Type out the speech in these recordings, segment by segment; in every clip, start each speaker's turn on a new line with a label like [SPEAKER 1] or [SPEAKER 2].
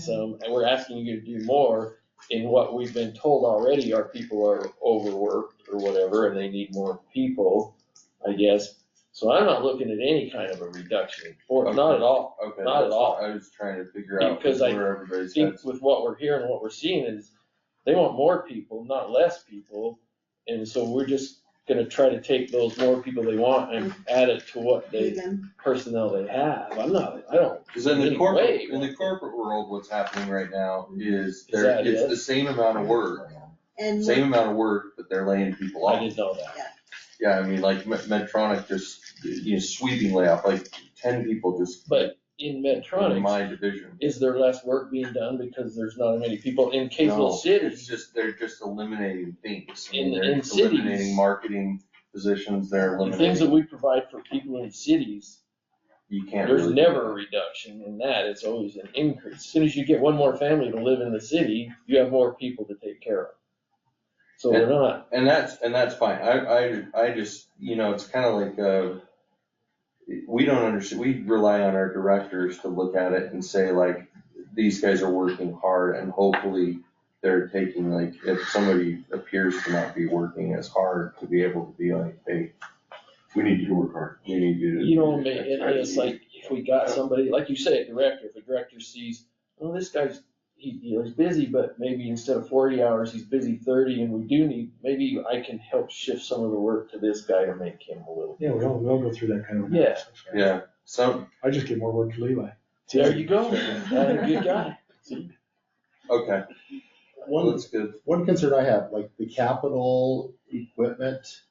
[SPEAKER 1] some, and we're asking you to do more in what we've been told already, our people are overworked or whatever, and they need more people, I guess. So I'm not looking at any kind of a reduction in force, not at all.
[SPEAKER 2] Okay.
[SPEAKER 1] Not at all.
[SPEAKER 2] I was trying to figure out
[SPEAKER 1] Because I
[SPEAKER 2] where everybody's at.
[SPEAKER 1] think with what we're hearing, what we're seeing is they want more people, not less people. And so we're just gonna try to take those more people they want and add it to what they,
[SPEAKER 3] Even,
[SPEAKER 1] personnel they have. I'm not, I don't,
[SPEAKER 2] Cause in the
[SPEAKER 1] Any
[SPEAKER 2] corporate,
[SPEAKER 1] way.
[SPEAKER 2] in the corporate world, what's happening right now is
[SPEAKER 1] Is
[SPEAKER 2] there,
[SPEAKER 1] that
[SPEAKER 2] it's
[SPEAKER 1] it?
[SPEAKER 2] the same amount of work,
[SPEAKER 3] and
[SPEAKER 2] same amount of work, but they're laying people
[SPEAKER 1] I
[SPEAKER 2] off.
[SPEAKER 1] didn't know that.
[SPEAKER 2] Yeah, I mean, like Med- Medtronic just, you know, sweeping layoff, like ten people just
[SPEAKER 1] But in
[SPEAKER 2] in
[SPEAKER 1] Medtronic,
[SPEAKER 2] my division.
[SPEAKER 1] is there less work being done because there's not as many people in Kaysville
[SPEAKER 2] No,
[SPEAKER 1] City?
[SPEAKER 2] It's just, they're just eliminating things. I
[SPEAKER 1] In-
[SPEAKER 2] mean, they're
[SPEAKER 1] in cities.
[SPEAKER 2] Eliminating marketing positions, they're
[SPEAKER 1] The things that
[SPEAKER 2] eliminating,
[SPEAKER 1] we provide for people in cities,
[SPEAKER 2] you can't really.
[SPEAKER 1] there's
[SPEAKER 2] do
[SPEAKER 1] never a reduction in that. It's always an increase. As Soon as you get one more family to live in the city, you have more people to take care of. So we're not
[SPEAKER 2] that. And that's, and that's fine, I, I, I just, you know, it's kinda like, uh, we don't understand, we rely on our directors to look at it and say like, these guys are working hard and hopefully they're taking like, if somebody appears to not be working as hard to be able to be like, hey,
[SPEAKER 4] We need you to work hard.
[SPEAKER 2] you need you to.
[SPEAKER 1] You know, ma- it- it's like, if we got somebody, like you say, a director, if a director sees, oh, this guy's, he, you know, he's busy, but maybe instead of forty hours, he's busy thirty, and we do need, maybe I can help shift some of the work to this guy to make him a little.
[SPEAKER 5] Yeah, we all, we all go through that kind of.
[SPEAKER 1] Yeah.
[SPEAKER 5] analysis, right?
[SPEAKER 2] Yeah, some,
[SPEAKER 5] I just get more work for Levi.
[SPEAKER 1] There you go, that's a good guy.
[SPEAKER 2] okay, well,
[SPEAKER 6] One,
[SPEAKER 2] that's good.
[SPEAKER 6] one concern I have, like the capital equipment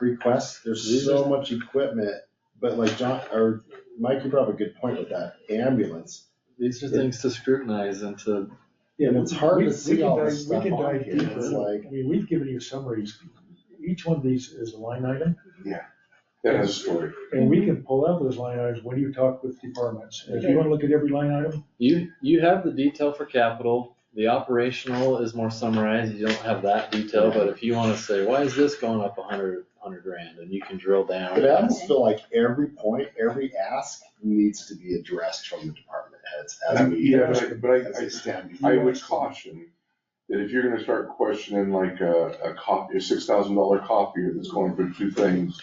[SPEAKER 6] requests, there's so much equipment, but like John, or Mike, you brought up a good point with that ambulance.
[SPEAKER 7] These are things to scrutinize and to,
[SPEAKER 5] Yeah,
[SPEAKER 6] And it's hard
[SPEAKER 5] we-
[SPEAKER 6] to
[SPEAKER 5] we
[SPEAKER 6] see
[SPEAKER 5] can
[SPEAKER 6] all
[SPEAKER 5] dive-
[SPEAKER 6] this
[SPEAKER 5] we
[SPEAKER 6] stuff
[SPEAKER 5] can
[SPEAKER 6] on
[SPEAKER 5] dive
[SPEAKER 6] here. It's
[SPEAKER 5] deeper.
[SPEAKER 6] like-
[SPEAKER 5] I mean, we've given you summaries. Each one of these is a line item,
[SPEAKER 4] That is a story.
[SPEAKER 5] and we can pull out those line items when you talk with departments. And If you wanna look at every line item,
[SPEAKER 7] you, you have the detail for capital. The operational is more summarized. You don't have that detail, but if you wanna say, why is this going up a hundred, hundred grand? And you can drill down.
[SPEAKER 6] But I almost feel like every point, every ask needs to be addressed from the department heads as we.
[SPEAKER 4] Yeah, but I- but
[SPEAKER 6] as
[SPEAKER 4] I,
[SPEAKER 6] they stand.
[SPEAKER 4] I, I would caution that if you're gonna start questioning like a, a copy, a six thousand dollar copier that's going for two things,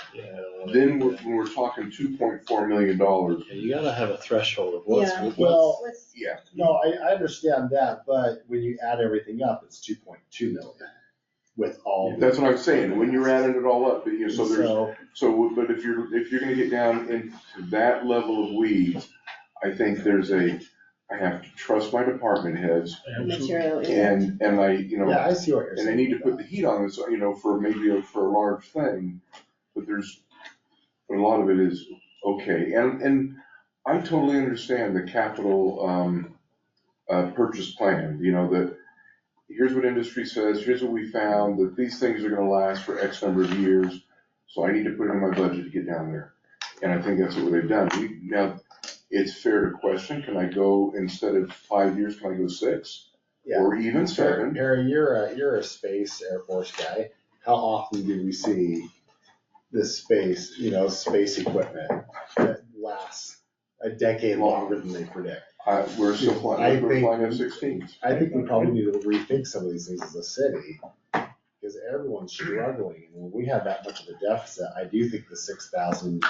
[SPEAKER 4] then we're, when we're talking two point four million dollars,
[SPEAKER 7] Yeah, You gotta have a threshold of what's,
[SPEAKER 3] Yeah.
[SPEAKER 7] what's.
[SPEAKER 6] Well,
[SPEAKER 3] let's,
[SPEAKER 4] yeah,
[SPEAKER 6] no, I, I understand that, but when you add everything up, it's two point two million with all. the-
[SPEAKER 4] that's what I'm saying, when you're adding it all up, you know, so there's
[SPEAKER 6] So-
[SPEAKER 4] So, but if you're, if you're gonna get down into that level of weeds, I think there's a, I have to trust my department heads
[SPEAKER 3] material. impact.
[SPEAKER 4] and, and I, you
[SPEAKER 6] Yeah,
[SPEAKER 4] know,
[SPEAKER 6] I see what you're saying.
[SPEAKER 4] and I need to
[SPEAKER 6] with
[SPEAKER 4] put the
[SPEAKER 6] that.
[SPEAKER 4] heat on this, you know, for maybe, a- for a large thing, but there's, but a lot of it is, okay, and, and I totally understand the capital, um, uh, purchase plan, you know, that here's what industry says, here's what we found, that these things are gonna last for X number of years, so I need to put it in my budget to get down there. And I think that's what they've done. We, now, it's fair to question, can I go, instead of five years, can I go six?
[SPEAKER 6] Yeah.
[SPEAKER 4] Or even seven?
[SPEAKER 6] Harry, you're a, you're a space Air Force guy. How often do we see this space, you know, space equipment that lasts a decade longer than they predict?
[SPEAKER 4] Uh, we're still
[SPEAKER 6] I
[SPEAKER 4] flying, we're
[SPEAKER 6] think-
[SPEAKER 4] flying F-16s.
[SPEAKER 6] I think we probably need to rethink some of these things as a city, because everyone's struggling. And when we have that much of a deficit, I do think the six thousand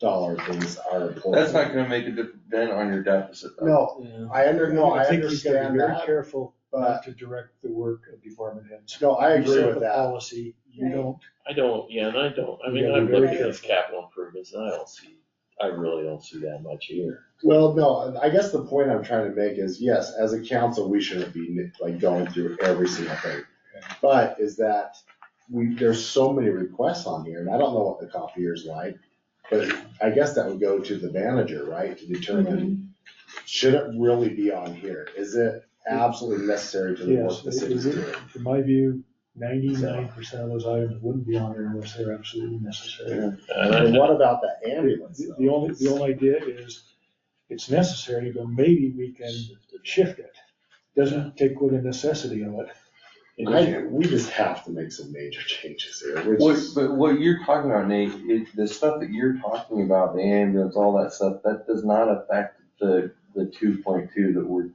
[SPEAKER 6] dollar things are important.
[SPEAKER 2] That's not gonna make a difference then on your deficit though.
[SPEAKER 6] No,
[SPEAKER 7] Yeah.
[SPEAKER 6] I under, no, I
[SPEAKER 5] I think you've gotta be
[SPEAKER 6] understand
[SPEAKER 5] very
[SPEAKER 6] that,
[SPEAKER 5] careful
[SPEAKER 6] but,
[SPEAKER 5] not to direct the work of department heads.
[SPEAKER 6] no, I
[SPEAKER 5] You
[SPEAKER 6] agree
[SPEAKER 5] set
[SPEAKER 6] with
[SPEAKER 5] the
[SPEAKER 6] that.
[SPEAKER 5] Policy, you
[SPEAKER 3] Right.
[SPEAKER 5] don't,
[SPEAKER 1] I don't, yeah, and I don't, I mean,
[SPEAKER 5] Yeah,
[SPEAKER 1] I've
[SPEAKER 5] we're
[SPEAKER 1] looked at
[SPEAKER 3] very
[SPEAKER 1] those capital improvements, and I don't see, I really don't see that much here.
[SPEAKER 6] Well, no, I guess the point I'm trying to make is, yes, as a council, we shouldn't be like going through every single thing. But is that we, there's so many requests on here and I don't know what the copier's like. But I guess that would go to the manager, right, to determine, should it really be on here? Is it absolutely necessary to the work
[SPEAKER 5] yes,
[SPEAKER 6] the city's
[SPEAKER 5] is
[SPEAKER 6] doing?
[SPEAKER 5] it, in my view, ninety-nine percent of those items wouldn't be on there unless they're absolutely necessary.
[SPEAKER 1] And I
[SPEAKER 6] And what about that ambulance
[SPEAKER 5] The
[SPEAKER 6] though?
[SPEAKER 5] the only, the only idea is, it's necessary, but maybe we can shift it. Doesn't take away the necessity of it.
[SPEAKER 6] I, we just have to make some major changes here. We're
[SPEAKER 2] What,
[SPEAKER 6] just-
[SPEAKER 2] but what you're talking about, Nate, is the stuff that you're talking about, the ambulance, all that stuff, that does not affect the, the two point two that we're